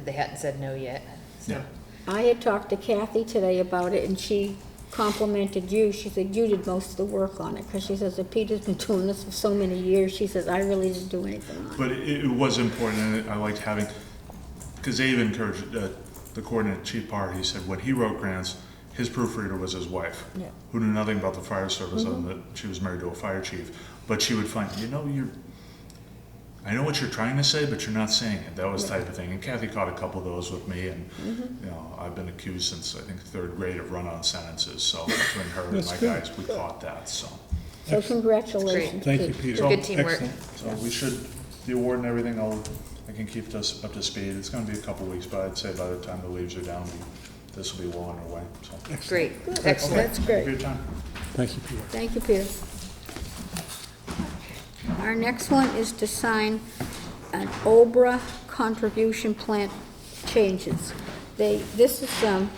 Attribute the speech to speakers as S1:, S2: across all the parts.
S1: They hadn't said no yet. so-
S2: No.
S3: I had talked to Kathy today about it, and she complimented you. She said you did most of the work on it, because she says that Peter's been doing this for so many years. She says, I really didn't do anything on it.
S2: But it, it was important, and I liked having, because Abe encouraged, uh, the coordinator, Chief Parr, he said when he wrote grants, his proofreader was his wife.
S3: Yeah.
S2: Who knew nothing about the fire service,
S4: Mm-hmm.
S2: other than that she was married to a fire chief, but she would find, you know, you're, I know what you're trying to say, but you're not saying it, that was type of thing, and Kathy caught a couple of those with me, and,
S4: Mm-hmm.
S2: you know, I've been accused since, I think, third grade of run-on sentences, so between her and my
S4: good.
S2: guys, we caught that, so.
S3: So congratulations.
S4: Thank you,
S3: Pete.
S4: Peter.
S1: So good teamwork.
S4: Excellent.
S2: So we should, the award and everything, I'll, I can keep this up to speed. It's gonna be a couple weeks, but I'd say by the time the leaves are down, we- this will be well underway, so.
S1: Great,
S3: That's
S1: excellent.
S2: Thank you for
S3: great.
S2: your time.
S4: Thank you, Peter.
S3: Thank you, Peter. Our next one is to sign an Obra contribution plan changes. They, this is, um,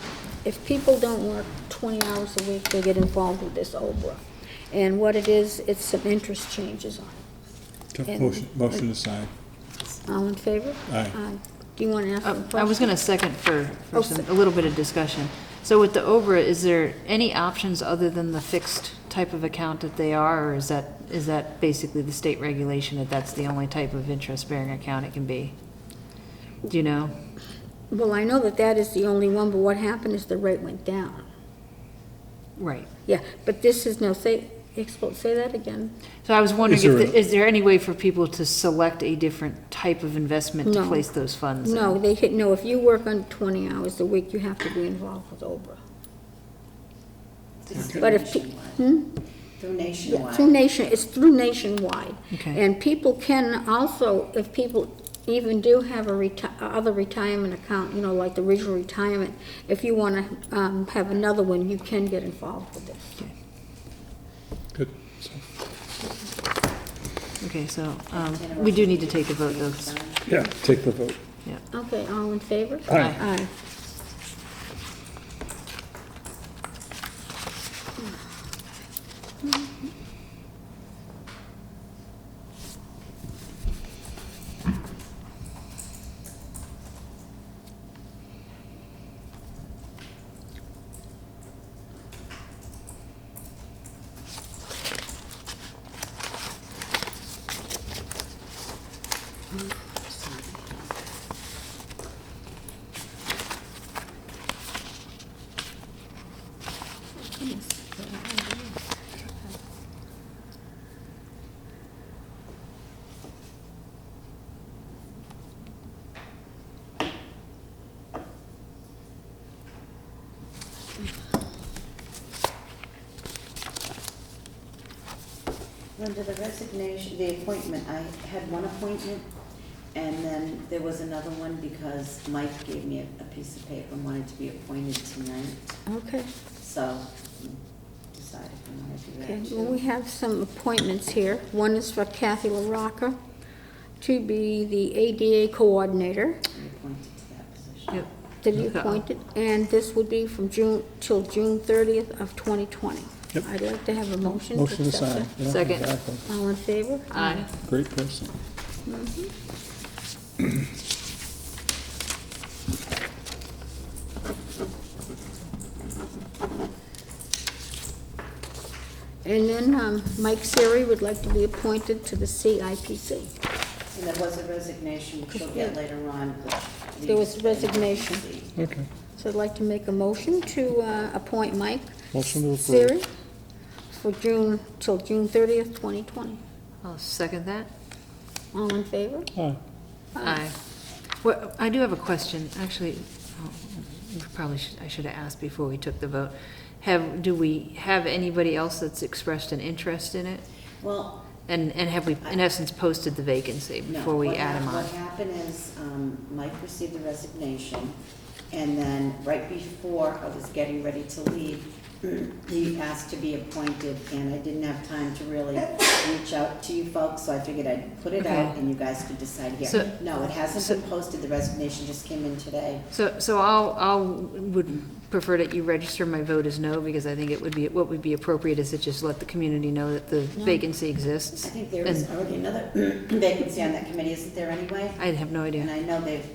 S3: if people don't work twenty hours a week, they get involved with this Obra. And what it is, it's some interest changes on it.
S4: Took
S3: And-
S4: Motion, motion aside.
S3: All in favor?
S4: Aye.
S3: Do you want to ask a
S5: Uh,
S3: question?
S5: I was gonna second for,
S3: Oh,
S5: for some, a little bit of discussion. So with the OBRA, is there any options other than the fixed type of account that they are, or is that, is that basically the state regulation that that's the only type of interest-bearing account it can be? Do you know?
S3: Well, I know that that is the only one, but what happened is the rate went down.
S5: Right.
S3: Yeah, but this is no, say, expl- say that again.
S5: So I was wondering,
S4: Is there
S5: if
S4: a-
S5: the- is there any way for people to select a different type of investment to
S3: No.
S5: place those funds? in?
S3: No, they, hit- no, if you work under 20 hours a week, you have to be involved with OBRA. But if pe- hmm?
S6: Through nationwide.
S3: Through nation, it's through nationwide.
S5: Okay.
S3: And people can also, if people even do have a reti, other retirement account, you know, like the regional retirement, if you want to have another one, you can get involved with this.
S4: Good. So,
S5: Okay, so, um, we do need to take a vote, though. 'cause-
S4: Yeah, take the vote.
S3: Okay, all in favor?
S4: Aye.
S3: Aye.
S6: Linda, the resignation, the appointment, I had one appointment, and then there was another one because Mike gave me a- a piece of paper and wanted to be appointed tonight,
S3: Okay.
S6: so mm, decided I wanted to do
S3: Okay,
S6: that
S3: well, we
S6: too.
S3: have some appointments here. One is for Kathy LaRocca to be the ADA coordinator,
S6: Be appointed to that position.
S5: Yep.
S3: to be
S4: Uh-huh.
S5: Okay.
S3: appointed, and this would be from June, till June 30th of 2020.
S4: Yep.
S3: I'd like to have a motion. to
S4: Motion
S3: accept
S4: aside. Yeah,
S5: Second.
S4: exactly.
S3: that. All in favor?
S5: Aye.
S4: Great person.
S3: And then um, Mike Siri would like to be appointed to the CIPC.
S6: And there was a resignation, which we'll get later on, which.
S3: There was
S6: leaves-
S3: resignation.
S4: Okay.
S3: So I'd like to make a motion to uh, appoint Mike
S4: Motion to approve.
S3: Siri for June, till June 30th, 2020.
S5: I'll second that.
S3: All in favor?
S4: Aye.
S5: Aye. Well, I do have a question, actually, oh, we probably should, I should have asked before we took the vote. Have, do we have anybody else that's expressed an interest in it?
S6: Well,
S5: And, and have we, in essence, posted the vacancy
S6: No,
S5: before we
S6: what
S5: add them
S6: hap-
S5: on?
S6: What happened is, um, Mike received the resignation, and then right before I was getting ready to leave, he asked to be appointed, and I didn't have time to really reach out to you folks, so I figured I'd put it out,
S5: Okay.
S6: and you guys could decide
S5: So-
S6: here. No, it hasn't
S5: so-
S6: been posted, the resignation just came in today.
S5: So, so I'll, I'll, would prefer that you register my vote as no, because I think it would be, what would be appropriate is to just let the community know that the vacancy exists.
S6: I think there is
S5: And
S6: already another vacancy on that committee, isn't there anyway?
S5: I have no idea.
S6: And I know they've